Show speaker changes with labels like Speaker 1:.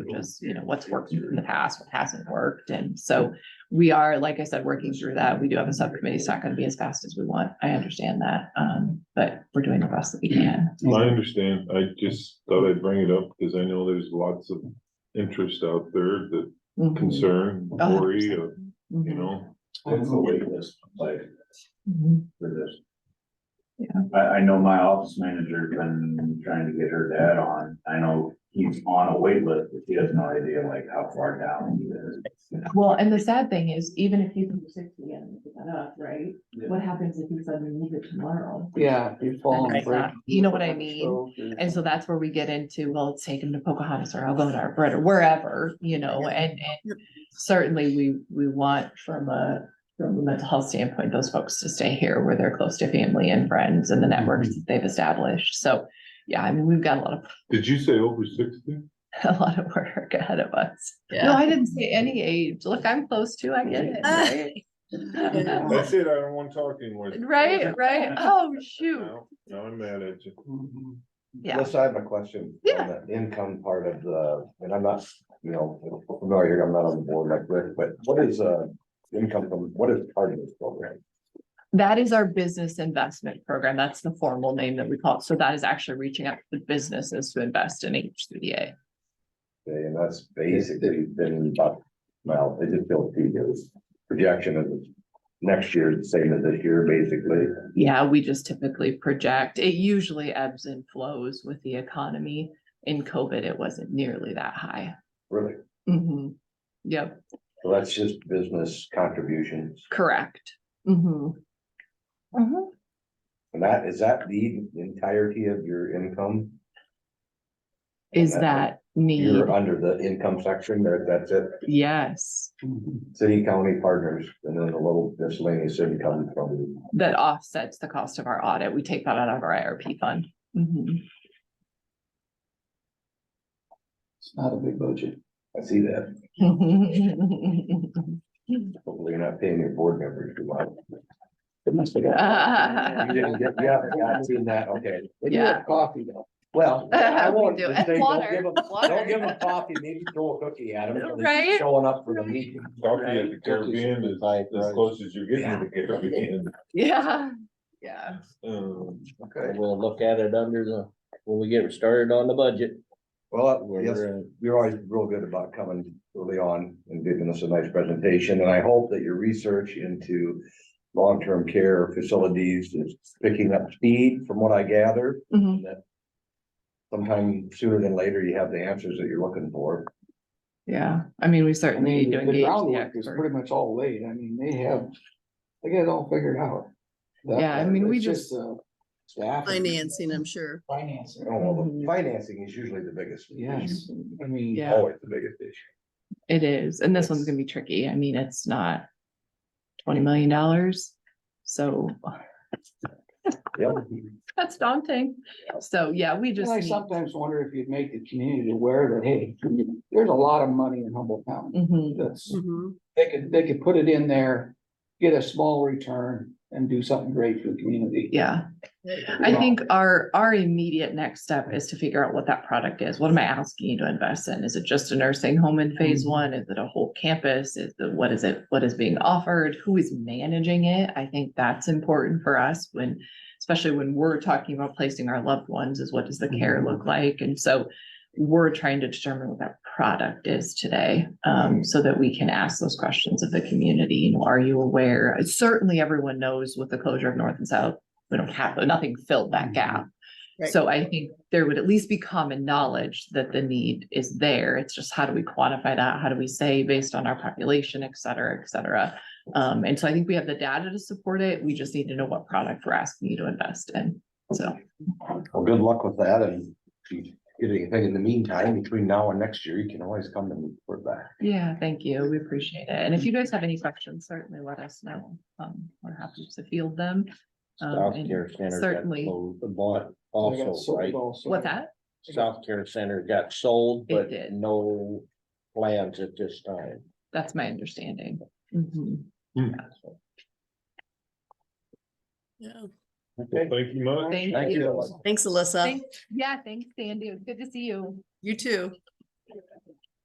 Speaker 1: knows, you know, what's worked in the past, what hasn't worked. And so we are, like I said, working through that. We do have a subcommittee. It's not going to be as fast as we want. I understand that. Um, but we're doing the best that we can.
Speaker 2: I understand. I just thought I'd bring it up because I know there's lots of interest out there, the
Speaker 1: Mhm.
Speaker 2: concern,
Speaker 1: A hundred
Speaker 2: worry,
Speaker 1: percent.
Speaker 2: of,
Speaker 1: Mhm.
Speaker 2: you know.
Speaker 3: What's the wait list like
Speaker 1: Mhm.
Speaker 3: for this?
Speaker 1: Yeah.
Speaker 3: I, I know my office manager been trying to get her dad on. I know he's on a wait list, but he has no idea like how far down he is.
Speaker 1: Well, and the sad thing is, even if you can do sixty and pick that up, right?
Speaker 3: Yeah.
Speaker 1: What happens if you suddenly need it tomorrow?
Speaker 4: Yeah. you fall and
Speaker 1: Right.
Speaker 4: break-
Speaker 1: You know what I mean?
Speaker 4: Yeah.
Speaker 1: And so that's where we get into, well, let's take him to Pocahontas or I'll go to our bread or wherever, you know, and, and certainly we, we want from a, from a mental health standpoint, those folks to stay here where they're close to family and friends and the
Speaker 4: Mm-hmm.
Speaker 1: networks that they've established. So, yeah, I mean, we've got a lot of,
Speaker 2: Did you say over sixty?
Speaker 1: a lot of work ahead of us. No,
Speaker 5: Yeah.
Speaker 1: I didn't say any age. Look, I'm close to, I get it, right?
Speaker 2: That's it. I don't want to talk anymore.
Speaker 1: Right, right. Oh, shoot.
Speaker 2: Now now I'm mad at you.
Speaker 4: Mhm.
Speaker 1: Yeah.
Speaker 6: Listen, I have a question.
Speaker 1: Yeah.
Speaker 6: on the Income part of the, and I'm not, you know, familiar, I'm not on the board like Rick, but what is, uh, income from, what is part of this program?
Speaker 1: That is our business investment program. That's the formal name that we call it. So that is actually reaching out to businesses to invest in HCDA.
Speaker 6: Okay, And that's basically been about, well, it just built two years. Projection of next year, is the same as this year, basically.
Speaker 1: Yeah, we just typically project. It usually ebbs and flows with the economy. In COVID, it wasn't nearly that high.
Speaker 6: Really?
Speaker 1: Mhm. Yep,
Speaker 6: So that's just business contributions.
Speaker 1: correct. hmm
Speaker 6: And that, is that the entirety of your income?
Speaker 1: Is that need?
Speaker 6: You're under the income section, or that's it?
Speaker 1: Yes,
Speaker 6: City county partners and then a little miscellaneous income from.
Speaker 1: that offsets the cost of our audit. We take that out of our IRP fund.
Speaker 4: Mm-hmm.
Speaker 1: Mhm.
Speaker 4: It's not a big budget.
Speaker 6: I see that. Hopefully you're not paying your board members too much.
Speaker 4: It must have got.
Speaker 6: You didn't get- Yeah, yeah, I've seen that. Okay.
Speaker 4: They do
Speaker 1: Yeah.
Speaker 4: have coffee though. Well.
Speaker 6: I
Speaker 1: We
Speaker 6: won't
Speaker 1: do.
Speaker 6: just
Speaker 1: And
Speaker 6: say, don't
Speaker 1: water,
Speaker 6: give 'em-
Speaker 1: water.
Speaker 6: Don't give them coffee, maybe throw a cookie at them.
Speaker 1: Right?
Speaker 6: Showing up for the meeting.
Speaker 2: Coffee at the Caribbean is as close as you're getting to the Caribbean.
Speaker 1: Yeah, yeah.
Speaker 2: Um,
Speaker 6: Okay.
Speaker 7: We'll look at it under the, when we get started on the budget.
Speaker 6: Well,
Speaker 7: where
Speaker 6: yes,
Speaker 7: we're at.
Speaker 6: you're always real good about coming early on and giving us a nice presentation, and I hope that your research into long-term care facilities is picking up speed from what I gather.
Speaker 4: Mm-hmm.
Speaker 1: Mhm.
Speaker 6: Sometime sooner than later, you have the answers that you're looking for.
Speaker 1: Yeah, I mean, we
Speaker 4: I
Speaker 1: certainly need
Speaker 4: mean,
Speaker 1: to
Speaker 4: the
Speaker 1: engage the
Speaker 4: groundwork is
Speaker 1: expert.
Speaker 4: pretty much all laid. I mean, they have, they got it all figured out. That
Speaker 1: Yeah, I
Speaker 4: part,
Speaker 1: mean, we
Speaker 4: it's
Speaker 1: just-
Speaker 4: uh, Staff. and-
Speaker 5: Financing, I'm sure.
Speaker 4: Financing.
Speaker 6: Oh, well, the
Speaker 1: Mhm.
Speaker 6: financing is usually the biggest. issue.
Speaker 4: Yes, I mean.
Speaker 1: Yeah.
Speaker 6: Always the biggest issue.
Speaker 1: It is, and this one's gonna be tricky. I mean, it's not twenty million dollars, so
Speaker 6: Yep.
Speaker 1: that's daunting. So, yeah, we
Speaker 4: And
Speaker 1: just
Speaker 4: I
Speaker 1: need.
Speaker 4: sometimes wonder if you'd make the community aware that, hey, there's a lot of money in Humboldt County.
Speaker 1: Mhm.
Speaker 4: That's,
Speaker 5: Mhm.
Speaker 4: they could, they could put it in there, get a small return and do something great for the community.
Speaker 1: Yeah, I think our, our immediate next step is to figure out what that product is. What am I asking you to invest in? Is it just a nursing home in phase
Speaker 4: Mhm.
Speaker 1: one? Is it a whole campus? Is the, what is it, what is being offered? Who is managing it? I think that's important for us when, especially when we're talking about placing our loved ones is what does the care look like? And so we're trying to determine what that product is today, um, so that we can ask those questions of the community. You know, are you aware? Certainly everyone knows with the closure of North and South, we don't have, nothing filled that gap.
Speaker 5: Right.
Speaker 1: So I think there would at least be common knowledge that the need is there. It's just how do we quantify that? How do we say based on our population, et cetera, et cetera? Um, and so I think we have the data to support it. We just need to know what product we're asking you to invest in. So,
Speaker 6: Well, good luck with that and if you get anything in the meantime, between now and next year, you can always come and report back.
Speaker 1: yeah, thank you. We appreciate it. And if you guys have any questions, certainly let us know. Um, we're happy to field them. Um,
Speaker 7: South
Speaker 1: and
Speaker 7: Care Center. got
Speaker 1: certainly.
Speaker 7: closed, Bought
Speaker 4: They got
Speaker 7: also,
Speaker 4: sold
Speaker 7: right?
Speaker 4: also.
Speaker 1: What's that?
Speaker 7: South Care Center got sold,
Speaker 1: It
Speaker 7: but
Speaker 1: did.
Speaker 7: no plans at this time.
Speaker 1: That's my understanding. Mhm.
Speaker 5: Yeah.
Speaker 2: well, thank you much.
Speaker 1: Thank
Speaker 7: Thank
Speaker 1: you.
Speaker 7: you.
Speaker 5: Thanks, Alyssa.
Speaker 1: Thank- Yeah, thanks, Sandy. It was Good to see you.
Speaker 5: You too.